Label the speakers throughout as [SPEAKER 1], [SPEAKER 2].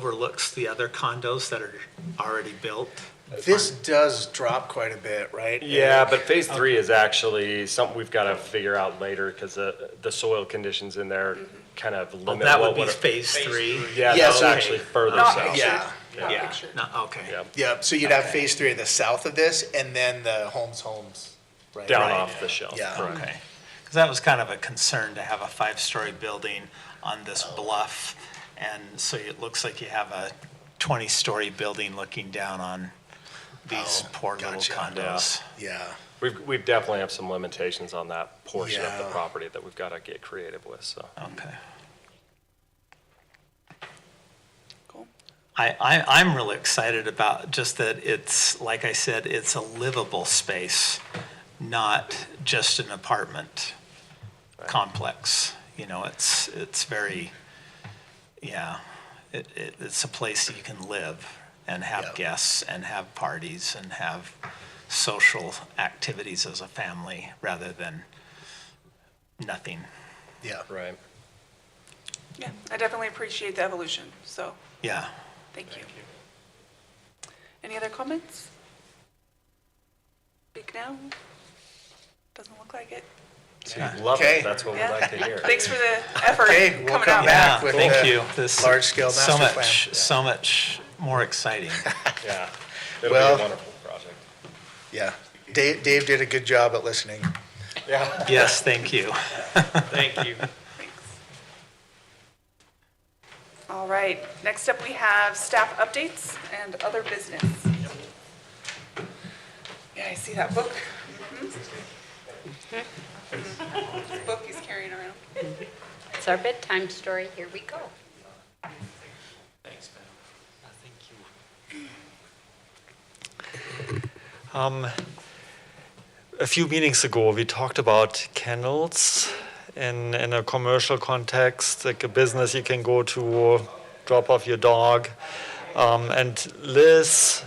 [SPEAKER 1] overlooks the other condos that are already built.
[SPEAKER 2] This does drop quite a bit, right?
[SPEAKER 3] Yeah, but phase three is actually something we've got to figure out later because the, the soil conditions in there kind of
[SPEAKER 1] Well,
[SPEAKER 3] limit
[SPEAKER 1] that
[SPEAKER 3] what
[SPEAKER 1] would be
[SPEAKER 3] would.
[SPEAKER 1] phase three.
[SPEAKER 3] Yeah,
[SPEAKER 2] Yeah,
[SPEAKER 3] that's
[SPEAKER 2] so-
[SPEAKER 3] actually further
[SPEAKER 4] Not
[SPEAKER 3] south.
[SPEAKER 4] pictured.
[SPEAKER 2] Yeah.
[SPEAKER 4] Not
[SPEAKER 1] Yeah.
[SPEAKER 4] pictured.
[SPEAKER 1] No, okay.
[SPEAKER 3] Yeah.
[SPEAKER 2] Yep, so you'd have phase three of the south of this, and then the Holmes Homes, right?
[SPEAKER 3] Down
[SPEAKER 2] Right.
[SPEAKER 3] off the shelf.
[SPEAKER 2] Yeah.
[SPEAKER 3] correct.
[SPEAKER 1] Okay. Because that was kind of a concern to have a five-story building on this bluff. And so it looks like you have a 20-story building looking down on these
[SPEAKER 2] Oh,
[SPEAKER 1] poor little
[SPEAKER 2] gotcha.
[SPEAKER 1] condos.
[SPEAKER 2] Yeah,
[SPEAKER 3] We've, we've definitely have some limitations on that portion of the
[SPEAKER 2] Yeah.
[SPEAKER 3] property that we've got to get creative with, so.
[SPEAKER 1] Okay.
[SPEAKER 4] Cool.
[SPEAKER 1] I, I, I'm really excited about just that it's, like I said, it's a livable space, not just an apartment complex. You know, it's, it's very, yeah, it, it, it's a place that you can live and
[SPEAKER 2] Yeah.
[SPEAKER 1] have guests and have parties and have social activities as a family rather than nothing.
[SPEAKER 2] yeah.
[SPEAKER 3] Right.
[SPEAKER 4] Yeah, I definitely appreciate the evolution, so
[SPEAKER 1] Yeah.
[SPEAKER 4] thank you. Any other comments? Speak now? Doesn't look like it.
[SPEAKER 3] Love
[SPEAKER 2] Okay.
[SPEAKER 3] it. That's what we'd
[SPEAKER 4] Yeah.
[SPEAKER 3] like to hear.
[SPEAKER 4] Thanks for the effort
[SPEAKER 2] Okay, we'll
[SPEAKER 4] coming
[SPEAKER 2] come
[SPEAKER 4] out.
[SPEAKER 2] back.
[SPEAKER 1] Yeah,
[SPEAKER 2] with
[SPEAKER 1] thank
[SPEAKER 2] the
[SPEAKER 1] you. This
[SPEAKER 2] large-scale
[SPEAKER 1] so
[SPEAKER 2] master plan.
[SPEAKER 1] much,
[SPEAKER 2] Yeah.
[SPEAKER 1] So much more exciting.
[SPEAKER 3] Yeah. It'll be a
[SPEAKER 2] Well-
[SPEAKER 3] wonderful project.
[SPEAKER 2] Yeah. Dave, Dave did a good job at listening.
[SPEAKER 3] Yeah.
[SPEAKER 1] Yes, thank you.
[SPEAKER 3] Thank you.
[SPEAKER 4] Thanks. All right, next up we have staff updates and other business. Yeah, I see that book. Mhm.
[SPEAKER 2] Mm-hmm.
[SPEAKER 4] Mhm. Book he's carrying around.
[SPEAKER 5] It's our bedtime story. Here we go.
[SPEAKER 6] Thanks, ma'am. Thank you. Um, a few meetings ago, we talked about kennels in, in a commercial context, like a business you can go to, drop off your dog. Um, and Liz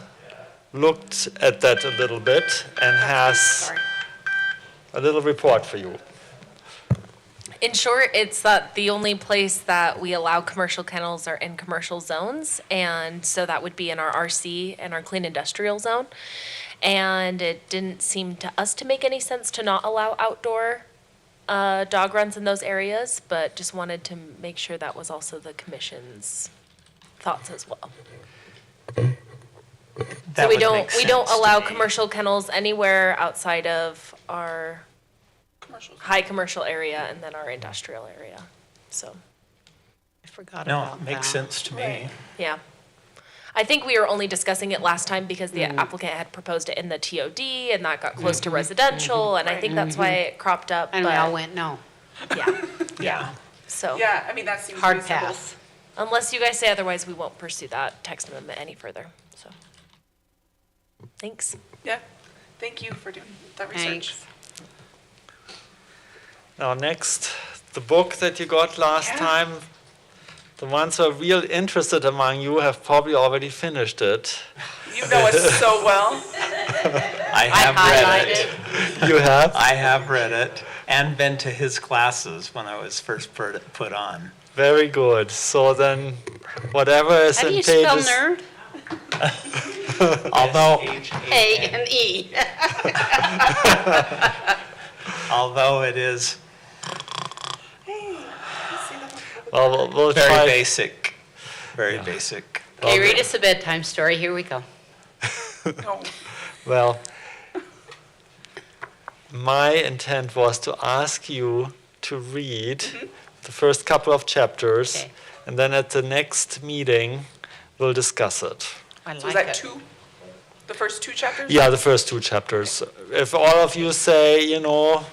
[SPEAKER 6] looked at that a little bit and has
[SPEAKER 4] Sorry.
[SPEAKER 6] a little report for you.
[SPEAKER 7] In short, it's that the only place that we allow commercial kennels are in commercial zones. And so that would be in our RC and our clean industrial zone. And it didn't seem to us to make any sense to not allow outdoor uh, dog runs in those areas, but just wanted to make sure that was also the commission's thoughts as well.
[SPEAKER 1] That
[SPEAKER 7] So we
[SPEAKER 1] would
[SPEAKER 7] don't,
[SPEAKER 1] make
[SPEAKER 7] we don't
[SPEAKER 1] sense to
[SPEAKER 7] allow
[SPEAKER 1] me.
[SPEAKER 7] commercial kennels anywhere outside of our
[SPEAKER 4] Commercials.
[SPEAKER 7] high commercial area and then our industrial area, so.
[SPEAKER 5] I forgot
[SPEAKER 1] No,
[SPEAKER 5] about
[SPEAKER 1] it
[SPEAKER 5] that.
[SPEAKER 7] Uh,
[SPEAKER 1] makes sense to me.
[SPEAKER 7] Yeah. I think we were only discussing it last time because the
[SPEAKER 5] Mm-hmm.
[SPEAKER 7] applicant had proposed it in the TOD and that got close to residential, and I think that's why it cropped up,
[SPEAKER 5] Mm-hmm. And we all
[SPEAKER 7] but,
[SPEAKER 5] went, no,
[SPEAKER 7] yeah,
[SPEAKER 1] Yeah.
[SPEAKER 7] so.
[SPEAKER 4] Yeah, I mean, that seems
[SPEAKER 5] hard
[SPEAKER 4] reasonable.
[SPEAKER 5] pass.
[SPEAKER 7] Unless you guys say otherwise, we won't pursue that text amendment any further, so. Thanks.
[SPEAKER 4] Yeah, thank you for doing that research.
[SPEAKER 5] Thanks.
[SPEAKER 6] Now, next, the book that you got last
[SPEAKER 4] Yeah.
[SPEAKER 6] time. The ones who are real interested among you have probably already finished it.
[SPEAKER 4] You know us so well.
[SPEAKER 1] I have read it.
[SPEAKER 6] You have?
[SPEAKER 1] I have read it and been to his classes when I was first put put on.
[SPEAKER 6] Very good. So then, whatever is
[SPEAKER 5] How do
[SPEAKER 6] in
[SPEAKER 5] you
[SPEAKER 6] pages.
[SPEAKER 5] spell nerd?
[SPEAKER 1] Although,
[SPEAKER 5] A and E.
[SPEAKER 1] although it is
[SPEAKER 6] Well, we'll, we'll
[SPEAKER 1] very
[SPEAKER 6] try.
[SPEAKER 1] basic, very basic.
[SPEAKER 5] Okay, read us a bedtime story. Here we go.
[SPEAKER 4] No,
[SPEAKER 6] Well, my intent was to ask you to read the first couple of chapters,
[SPEAKER 5] Mm-hmm. Okay.
[SPEAKER 6] and then at the next meeting, we'll discuss it.
[SPEAKER 5] I
[SPEAKER 4] was
[SPEAKER 5] like
[SPEAKER 4] that
[SPEAKER 5] it.
[SPEAKER 4] two? The first two chapters?
[SPEAKER 6] Yeah, the first two chapters. If all of you say, you know,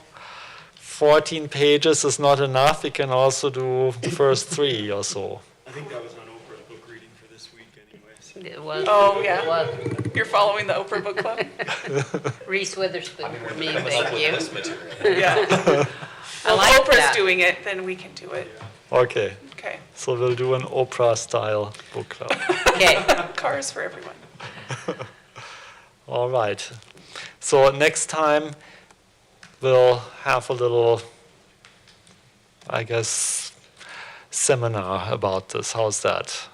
[SPEAKER 6] 14 pages is not enough, we can also do the first three or so.
[SPEAKER 8] I think that was on Oprah's book reading for this week anyways.
[SPEAKER 5] It was,
[SPEAKER 4] Oh,
[SPEAKER 5] it
[SPEAKER 4] yeah.
[SPEAKER 5] was
[SPEAKER 4] You're following the Oprah Book Club?
[SPEAKER 5] Reese Witherspoon for me, thank you.
[SPEAKER 4] Yeah.
[SPEAKER 5] I
[SPEAKER 4] Well, if
[SPEAKER 5] like
[SPEAKER 4] Oprah's
[SPEAKER 5] that.
[SPEAKER 4] doing it, then we can do it.
[SPEAKER 6] Okay,
[SPEAKER 4] Okay.
[SPEAKER 6] so we'll do an Oprah style book club.
[SPEAKER 5] Okay,
[SPEAKER 4] Cars for everyone.
[SPEAKER 6] all right. So next time, we'll have a little, I guess, seminar about this. How's that?